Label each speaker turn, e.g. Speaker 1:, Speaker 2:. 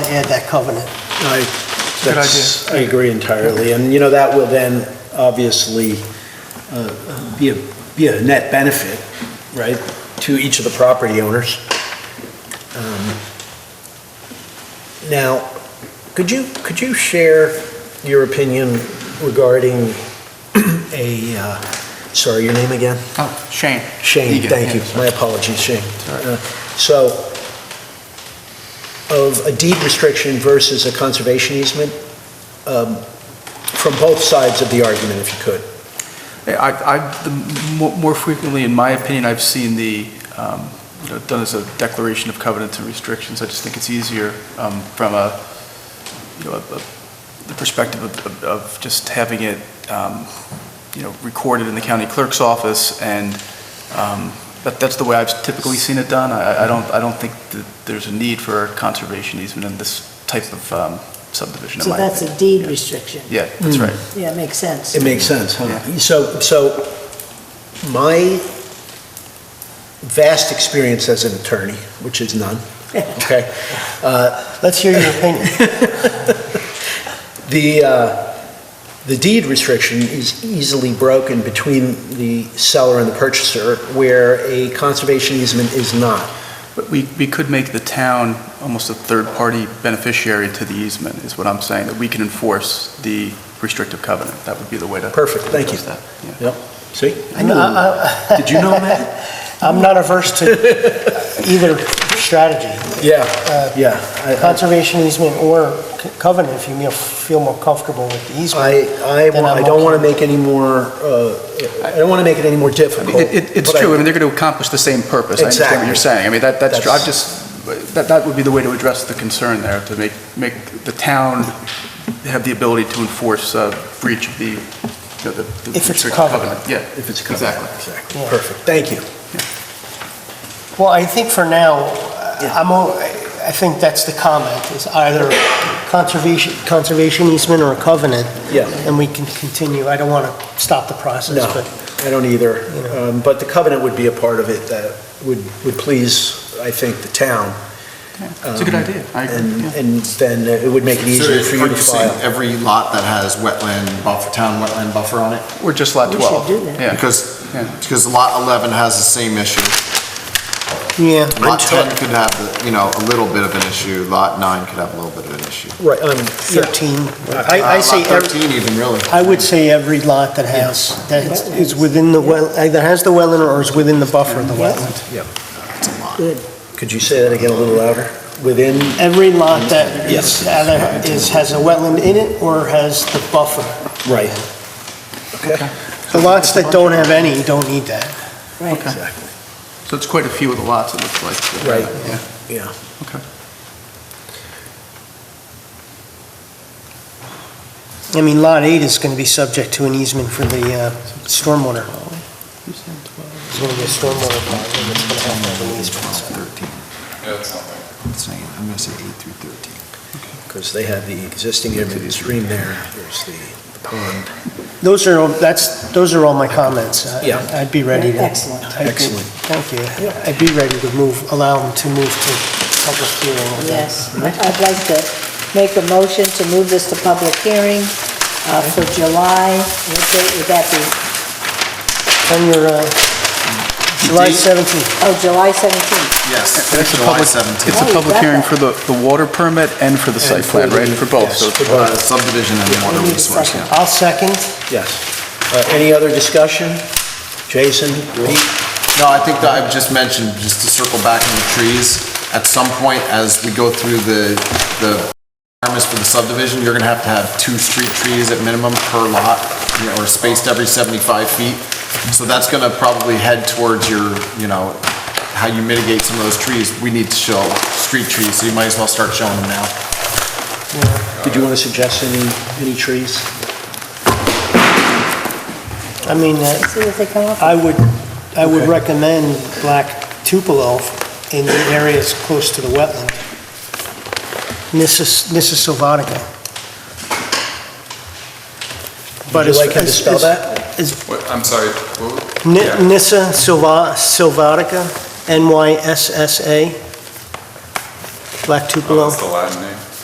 Speaker 1: add that covenant.
Speaker 2: I,
Speaker 3: Good
Speaker 2: that's, I agree entirely, and, you know, that will then obviously uh, be a, be a net benefit, right, to each of the property owners. Um, Now, could you, could you share your opinion regarding a, uh, sorry, your name again?
Speaker 3: Oh, Shane.
Speaker 2: Shane,
Speaker 3: Egan.
Speaker 2: thank you.
Speaker 3: Yeah,
Speaker 2: My
Speaker 3: sorry.
Speaker 2: apologies, Shane.
Speaker 3: Sorry.
Speaker 2: Uh, So, of a deed restriction versus a conservation easement, um, from both sides of the argument, if you could.
Speaker 3: Yeah, I, I, the mo- more frequently, in my opinion, I've seen the, um, you know, done as a declaration of covenants and restrictions. I just think it's easier um, from a, you know, a- a- the perspective of- of, of just having it, um, you know, recorded in the county clerk's office, and um, that, that's the way I've typically seen it done. I, I don't, I don't think that there's a need for conservation easement in this type of um, subdivision, in
Speaker 1: So
Speaker 3: my
Speaker 1: that's
Speaker 3: opinion.
Speaker 1: a deed restriction.
Speaker 3: Yeah, that's right.
Speaker 1: Yeah, it makes sense.
Speaker 2: It makes sense, huh?
Speaker 3: Yeah.
Speaker 2: So, so my vast experience as an attorney, which is none, okay? uh,
Speaker 1: Let's hear your opinion.
Speaker 2: The, uh, the deed restriction is easily broken between the seller and the purchaser, where a conservation easement is not.
Speaker 3: But we, we could make the town almost a third-party beneficiary to the easement, is what I'm saying, that we can enforce the restrictive covenant. That would be the way to.
Speaker 2: Perfect, thank you.
Speaker 3: address that, yeah.
Speaker 2: See?
Speaker 1: I know, I- I-
Speaker 2: Did you know that?
Speaker 1: I'm not averse to either strategy,
Speaker 2: Yeah,
Speaker 1: Uh,
Speaker 2: yeah. I-
Speaker 1: conservation easement or c- covenant, if you feel- feel more comfortable with the easement.
Speaker 2: I, I,
Speaker 1: Then
Speaker 2: I
Speaker 1: I'm
Speaker 2: don't want to
Speaker 1: okay.
Speaker 2: make any more, uh, I don't want to make it any more
Speaker 3: I
Speaker 2: difficult.
Speaker 3: mean, it- it- It's
Speaker 2: but
Speaker 3: true, I mean, they're going to accomplish the same purpose. I understand what
Speaker 2: Exactly.
Speaker 3: you're saying. I mean, that, that's, true.
Speaker 2: That's-
Speaker 3: I've just, that, that would be the way to address the concern there, to make, make the town have the ability to enforce uh, breach of the, you know, the. the
Speaker 1: If it's a
Speaker 3: restrictive
Speaker 1: covenant.
Speaker 3: Yeah.
Speaker 2: If it's covered.
Speaker 3: Exactly.
Speaker 2: Exactly,
Speaker 1: Yeah.
Speaker 2: perfect, thank you.
Speaker 1: Well, I think for now,
Speaker 2: Yeah.
Speaker 1: I'm, o- I think that's the comment, is either conservation, conservation easement or a covenant.
Speaker 2: Yeah.
Speaker 1: And we can continue. I don't want to stop the process,
Speaker 2: No.
Speaker 1: but
Speaker 2: I don't either,
Speaker 1: You know.
Speaker 2: Um, but the covenant would be a part of it that would, would please, I think, the town.
Speaker 3: It's a good
Speaker 2: Um,
Speaker 3: idea. I agree,
Speaker 2: And,
Speaker 3: yeah.
Speaker 2: and then it would make it easier for you to
Speaker 4: So are saying
Speaker 2: file.
Speaker 4: Every lot that has wetland buffer, town wetland buffer on it?
Speaker 3: Or just lot
Speaker 1: We should
Speaker 3: 12.
Speaker 1: do that.
Speaker 3: Yeah.
Speaker 4: Because,
Speaker 3: Yeah.
Speaker 4: because lot 11 has the same issue.
Speaker 1: yeah.
Speaker 4: Lot
Speaker 2: Until-
Speaker 4: 10 could have, the, you know, a little bit of an issue. Lot 9 could have a little bit of an issue.
Speaker 2: Right, um, yeah.
Speaker 1: 13,
Speaker 2: I, I
Speaker 4: Uh,
Speaker 2: say,
Speaker 4: Lot
Speaker 2: every-
Speaker 4: 13 even really.
Speaker 1: I would say every lot that has, that is within the well, either has the wetland or is within the buffer of the wetland.
Speaker 4: It's a lot.
Speaker 2: could you say that again a little louder? Within,
Speaker 1: Every lot that
Speaker 2: Yes.
Speaker 1: is, either is, has a wetland in it or has the buffer.
Speaker 2: right. Okay.
Speaker 1: The lots that don't have any don't need that.
Speaker 3: Okay.
Speaker 2: Exactly.
Speaker 3: So it's quite a few of the lots, it looks like.
Speaker 2: Right.
Speaker 3: Yeah.
Speaker 2: Yeah.
Speaker 1: I mean, Lot 8 is going to be subject to an easement for the uh, stormwater.
Speaker 3: You said 12.
Speaker 1: It's going to be a stormwater pond, and it's going to have an easement. so.
Speaker 4: 13.
Speaker 5: Yeah, it's not like,
Speaker 4: It's not- I'm going to say 8 through 13.
Speaker 2: Because they have the existing imminent stream there, there's the the pond.
Speaker 1: Those are, all- that's, those are all my comments. I-
Speaker 2: Yeah.
Speaker 1: I'd be ready to.
Speaker 6: Excellent.
Speaker 1: I'd be-
Speaker 2: Excellent.
Speaker 1: Thank you. I'd be ready to move, allow them to move to public hearing. with that.
Speaker 6: Yes, I'd like to make a motion to move this to public hearing uh, for July, what date would that be?
Speaker 1: On your, uh, July 17th.
Speaker 6: Oh, July 17th.
Speaker 4: Yes,
Speaker 3: It's a
Speaker 4: July
Speaker 3: public,
Speaker 4: 17.
Speaker 3: it's a
Speaker 6: Oh,
Speaker 3: public
Speaker 6: got
Speaker 3: hearing
Speaker 6: that.
Speaker 3: for the, the water permit and for the site plan, right? For both, so
Speaker 2: Yes, for
Speaker 4: Uh,
Speaker 2: both,
Speaker 4: Subdivision and water
Speaker 6: We need a
Speaker 4: resource,
Speaker 6: second.
Speaker 4: yeah.
Speaker 1: I'll second.
Speaker 2: yes. Uh, Any other discussion? Jason? Pete?
Speaker 4: No, I think that I've just mentioned, just to circle back on the trees, at some point, as we go through the, the requirements for the subdivision, you're gonna have to have two street trees at minimum per lot, you know, or spaced every 75 feet. So that's gonna probably head towards your, you know, how you mitigate some of those trees. We need to show street trees, so you might as well start showing them now.
Speaker 2: Did you want to suggest any, any trees?
Speaker 1: I mean, uh,
Speaker 6: See what they come up
Speaker 1: I would, I would
Speaker 2: Okay.
Speaker 1: recommend black tupelo in the areas close to the wetland. Nissus, Nissus sylvatica.
Speaker 2: Would you like him to spell that?
Speaker 5: what, I'm sorry, what- Yeah.
Speaker 1: Nissa sylva- sylvatica, N-Y-S-S-A, black
Speaker 5: oh,
Speaker 1: tupelo.
Speaker 5: that's the Latin name.